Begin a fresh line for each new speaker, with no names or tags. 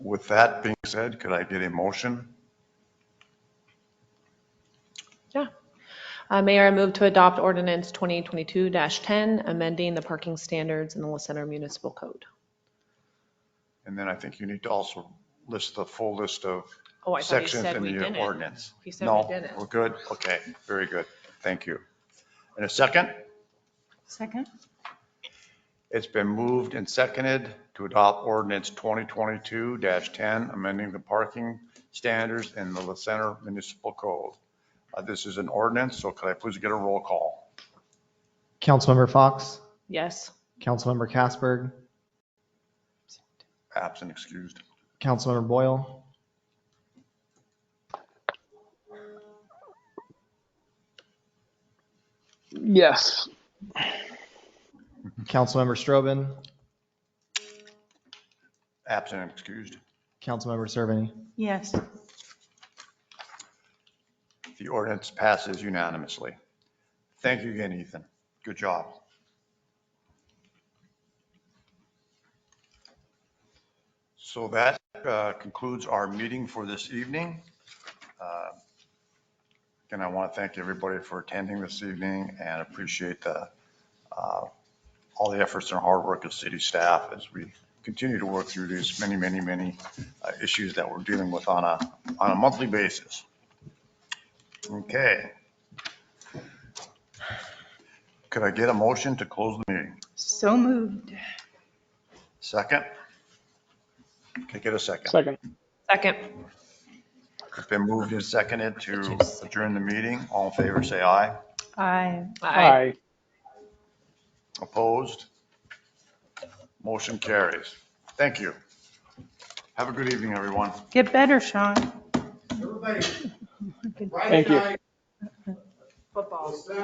With that being said, could I get a motion?
Yeah. Uh, Mayor, I move to adopt ordinance 2022-10, amending the parking standards in the La Center Municipal Code.
And then I think you need to also list the full list of
Oh, I thought he
sections
said
in
we
the
didn't.
ordinance.
He said we
No,
didn't.
we're good. Okay, very good. Thank you. And a second?
Second?
It's been moved and seconded to adopt ordinance 2022-10, amending the parking standards in the La Center Municipal Code. Uh, This is an ordinance, so could I please get a roll call?
Councilmember Fox,
Yes.
Councilmember Casberg,
Absent excused.
Councilmember Boyle,
Yes.
Councilmember Strobin,
Absent excused.
Councilmember Cerveny.
Yes.
The ordinance passes unanimously. Thank you again, Ethan. Good job. So that uh, concludes our meeting for this evening. Uh, Again, I want to thank everybody for attending this evening and appreciate the, uh, all the efforts and hard work of city staff as we continue to work through these many, many, many uh, issues that we're dealing with on a, on a monthly basis. Okay. Could I get a motion to close the meeting?
So moved.
Second? Can I get a second?
Second.
Second.
It's been moved and seconded to adjourn the meeting. All in favor, say aye.
Aye.
Aye.
Opposed? Motion carries. Thank you. Have a good evening, everyone.
Get better, Sean.
Everybody,
Thank you.
right
Football.
now,